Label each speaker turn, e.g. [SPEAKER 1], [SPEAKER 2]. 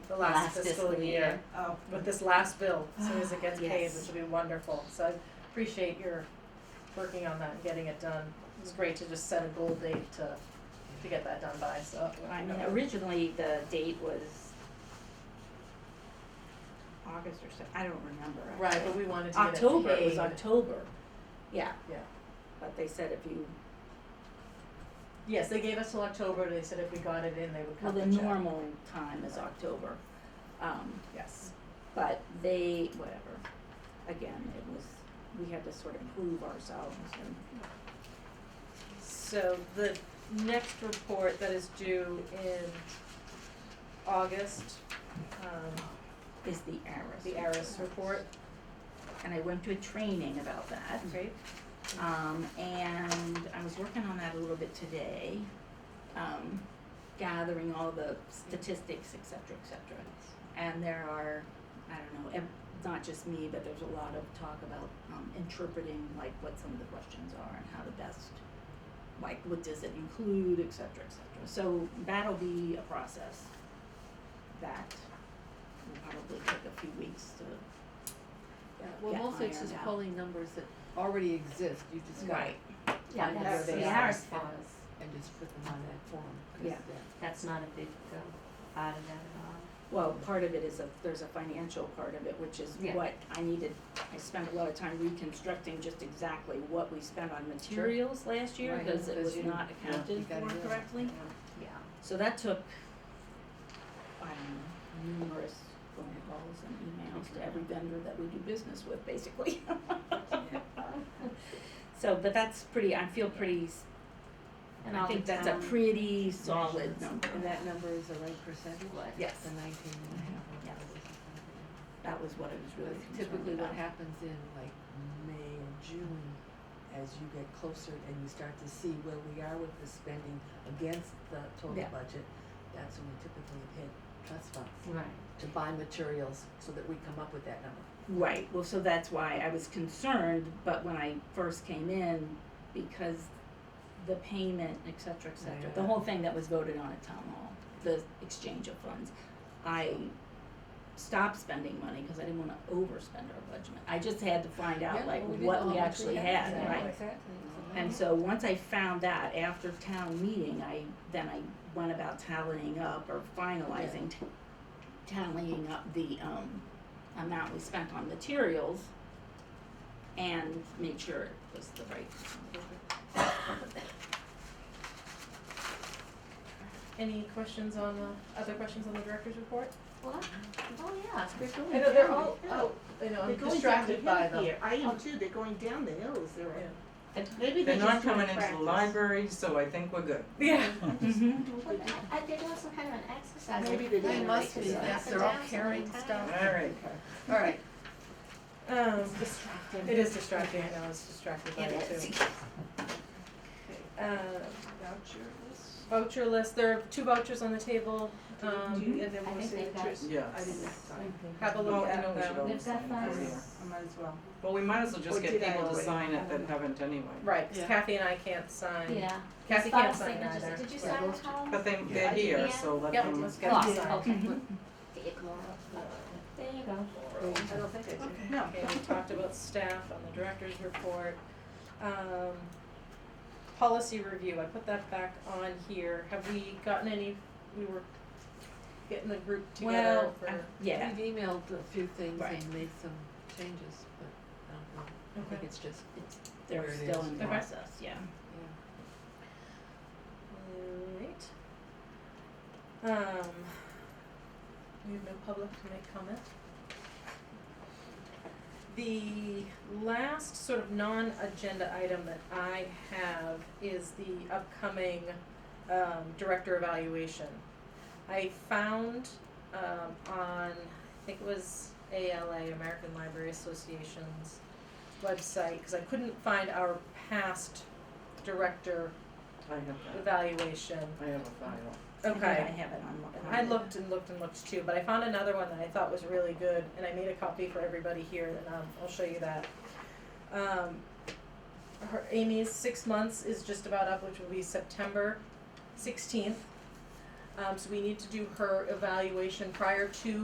[SPEAKER 1] the last
[SPEAKER 2] Last
[SPEAKER 1] fiscal
[SPEAKER 2] fiscal
[SPEAKER 1] year,
[SPEAKER 2] year. Ah,
[SPEAKER 1] uh, with this last bill, as soon as it gets paid,
[SPEAKER 2] Yes.
[SPEAKER 1] which will be wonderful. So I appreciate your working on that and getting it done. It's great to just set a goal date to, to get that done by, so.
[SPEAKER 2] I mean, originally the date was August or so, I don't remember.
[SPEAKER 1] Right, but
[SPEAKER 2] actually.
[SPEAKER 1] we wanted to get it paid.
[SPEAKER 2] October, it was October, yeah.
[SPEAKER 1] Yeah.
[SPEAKER 2] But they said if you,
[SPEAKER 1] Yes, they gave us till October, they said if we got it in, they would
[SPEAKER 2] well,
[SPEAKER 1] cut the
[SPEAKER 2] the
[SPEAKER 1] check.
[SPEAKER 2] normal time is October, um,
[SPEAKER 1] Yes,
[SPEAKER 2] but they, whatever. Again, it was, we had to sort of prove ourselves and
[SPEAKER 1] so the next report that is due in August, um,
[SPEAKER 2] is the heiress.
[SPEAKER 1] the ARIS report,
[SPEAKER 2] And I went to a training about that.
[SPEAKER 1] right?
[SPEAKER 2] Um, and I was working on that a little bit today, um, gathering all the statistics, et cetera, et cetera. And there are, I don't know, ev- not just me, but there's a lot of talk about, um, interpreting like what some of the questions are and how to best, like what does it include, et cetera, et cetera. So that'll be a process that will probably take a few weeks to uh,
[SPEAKER 3] Well,
[SPEAKER 2] get
[SPEAKER 3] mostly it's
[SPEAKER 2] ironed
[SPEAKER 3] just
[SPEAKER 2] out.
[SPEAKER 3] pulling numbers that already exist, you just got
[SPEAKER 2] Right. Yeah,
[SPEAKER 3] Find out
[SPEAKER 2] that's
[SPEAKER 1] where they
[SPEAKER 2] the
[SPEAKER 1] are.
[SPEAKER 2] hours
[SPEAKER 4] Pause.
[SPEAKER 3] and just put them on that form. 'cause
[SPEAKER 2] Yeah.
[SPEAKER 3] that-
[SPEAKER 4] That's not a big uh, out of that at all.
[SPEAKER 2] Well, part of it is a, there's a financial part of it, which is
[SPEAKER 4] Yeah.
[SPEAKER 2] what I needed, I spent a lot of time reconstructing just exactly what we spent on materials last year,
[SPEAKER 3] Right,
[SPEAKER 2] cause it
[SPEAKER 3] 'cause
[SPEAKER 2] was
[SPEAKER 3] you-
[SPEAKER 2] not
[SPEAKER 3] yeah, you
[SPEAKER 2] accounted
[SPEAKER 3] gotta do
[SPEAKER 2] for
[SPEAKER 3] that.
[SPEAKER 2] correctly.
[SPEAKER 4] Yeah.
[SPEAKER 2] So that took, I don't know, numerous phone calls and emails to every vendor that we do business with, basically. So, but that's pretty, I feel pretty, s-
[SPEAKER 4] And
[SPEAKER 2] I
[SPEAKER 4] all the
[SPEAKER 2] think that's a
[SPEAKER 4] town-
[SPEAKER 2] pretty solid number.
[SPEAKER 3] And that number is the right percentage?
[SPEAKER 4] What?
[SPEAKER 2] Yes,
[SPEAKER 3] The nineteen and a half. or
[SPEAKER 2] Yes.
[SPEAKER 3] whatever it is.
[SPEAKER 2] that was what I was really
[SPEAKER 3] That's
[SPEAKER 2] concerned
[SPEAKER 3] Typically what
[SPEAKER 2] about.
[SPEAKER 3] happens in like May or June, as you get closer and you start to see where we are with the spending against the total
[SPEAKER 2] Yeah.
[SPEAKER 3] budget, that's when we typically hit trust funds
[SPEAKER 4] Right.
[SPEAKER 3] to buy materials so that we come up with that number.
[SPEAKER 2] Right, well, so that's why I was concerned, but when I first came in, because the payment, et cetera, et cetera, the
[SPEAKER 3] Yeah.
[SPEAKER 2] whole thing that was voted on at town hall, the exchange of funds, I stopped spending money because I didn't wanna overspend our budget. I just had to find out
[SPEAKER 3] Yeah,
[SPEAKER 2] like
[SPEAKER 3] well, we didn't know
[SPEAKER 2] what we
[SPEAKER 3] how much
[SPEAKER 2] actually
[SPEAKER 3] had,
[SPEAKER 2] had,
[SPEAKER 3] yeah,
[SPEAKER 2] right?
[SPEAKER 3] Exactly.
[SPEAKER 2] And so once I found that after town meeting, I, then I went about tallying up or finalizing, t- tallying up the, um, amount we spent on materials and made sure it was the right.
[SPEAKER 1] Any questions on the, other questions on the director's report?
[SPEAKER 4] What? Oh, yeah, we're going
[SPEAKER 1] I know, they're
[SPEAKER 4] down
[SPEAKER 1] all,
[SPEAKER 4] the hill.
[SPEAKER 1] oh, I know,
[SPEAKER 5] They're
[SPEAKER 1] I'm
[SPEAKER 5] going down the
[SPEAKER 1] distracted by
[SPEAKER 5] hill
[SPEAKER 1] them.
[SPEAKER 5] here. I am too. They're going down the hill. Is there?
[SPEAKER 1] Yeah.
[SPEAKER 5] a- Maybe they
[SPEAKER 6] They're not
[SPEAKER 5] just wanna
[SPEAKER 6] coming into the
[SPEAKER 5] practice.
[SPEAKER 6] library, so I think we're good.
[SPEAKER 1] Yeah.
[SPEAKER 2] Mhm.
[SPEAKER 4] Well, I, I did also kind of an exercise.
[SPEAKER 5] Maybe they
[SPEAKER 4] They
[SPEAKER 5] didn't
[SPEAKER 4] must
[SPEAKER 5] like
[SPEAKER 4] be,
[SPEAKER 5] it.
[SPEAKER 4] yes, they're all carrying stuff.
[SPEAKER 6] All right.
[SPEAKER 1] All right. Um, it is distracting, I know, it's distracted by it too.
[SPEAKER 4] It is.
[SPEAKER 1] Um,
[SPEAKER 5] Voucher list?
[SPEAKER 1] voucher list, there are two vouchers on the table,
[SPEAKER 5] Do you-
[SPEAKER 1] um,
[SPEAKER 5] do you-
[SPEAKER 1] and then
[SPEAKER 4] I
[SPEAKER 1] we'll
[SPEAKER 4] think
[SPEAKER 1] see the
[SPEAKER 4] they've got-
[SPEAKER 1] choice.
[SPEAKER 6] Yeah.
[SPEAKER 5] I didn't sign.
[SPEAKER 1] Have a
[SPEAKER 6] Well,
[SPEAKER 1] look
[SPEAKER 6] Oh, I
[SPEAKER 1] at
[SPEAKER 6] know we should
[SPEAKER 1] them,
[SPEAKER 6] always
[SPEAKER 4] They've got
[SPEAKER 6] sign
[SPEAKER 4] five.
[SPEAKER 6] it over here.
[SPEAKER 5] I might as well.
[SPEAKER 6] Well, we might as well
[SPEAKER 5] Or
[SPEAKER 6] just
[SPEAKER 5] did
[SPEAKER 6] get
[SPEAKER 5] I Oh.
[SPEAKER 6] people to
[SPEAKER 5] already?
[SPEAKER 6] sign
[SPEAKER 5] I
[SPEAKER 6] it that
[SPEAKER 5] don't know.
[SPEAKER 6] haven't anyway.
[SPEAKER 1] right, 'cause
[SPEAKER 3] Yeah.
[SPEAKER 1] Kathy and I can't sign.
[SPEAKER 4] Yeah.
[SPEAKER 1] Kathy
[SPEAKER 4] Five
[SPEAKER 1] can't sign
[SPEAKER 4] signatures.
[SPEAKER 1] either.
[SPEAKER 4] Did you
[SPEAKER 1] Yeah.
[SPEAKER 4] sign the column?
[SPEAKER 6] But they,
[SPEAKER 5] Yeah.
[SPEAKER 4] Oh,
[SPEAKER 6] they're here,
[SPEAKER 4] Yeah.
[SPEAKER 6] so let
[SPEAKER 1] Yep,
[SPEAKER 6] them.
[SPEAKER 1] let's get
[SPEAKER 4] Lost.
[SPEAKER 1] them signed.
[SPEAKER 4] Okay. There you go.
[SPEAKER 5] I don't think I did.
[SPEAKER 1] No. Okay, we talked about staff on the director's report. Um, policy review, I put that back on here. Have we gotten any, we were getting the group together
[SPEAKER 3] Well,
[SPEAKER 1] for.
[SPEAKER 3] I-
[SPEAKER 2] Yeah,
[SPEAKER 3] We've emailed a few things
[SPEAKER 2] Right.
[SPEAKER 3] and made some changes, but I don't know, I think
[SPEAKER 1] Okay.
[SPEAKER 3] it's just, There
[SPEAKER 2] they're
[SPEAKER 3] it
[SPEAKER 2] still
[SPEAKER 3] is.
[SPEAKER 2] in
[SPEAKER 1] Okay.
[SPEAKER 2] process, yeah.
[SPEAKER 3] yeah.
[SPEAKER 1] Alright. Um, we have no public to make comment. The last sort of non-agenda item that I have is the upcoming um director evaluation. I found um on, I think it was ALA, American Library Association's website, cause I couldn't find our past director
[SPEAKER 6] I have that.
[SPEAKER 1] evaluation.
[SPEAKER 6] I have a file.
[SPEAKER 2] I think I
[SPEAKER 1] Okay.
[SPEAKER 2] have it on.
[SPEAKER 1] I looked and looked and looked too, but I found another one that I thought was really good, and I made a copy for everybody here, and um, I'll show you that. Um, her, Amy's six months is just about up, which will be September sixteenth. Um, so we need to do her evaluation prior to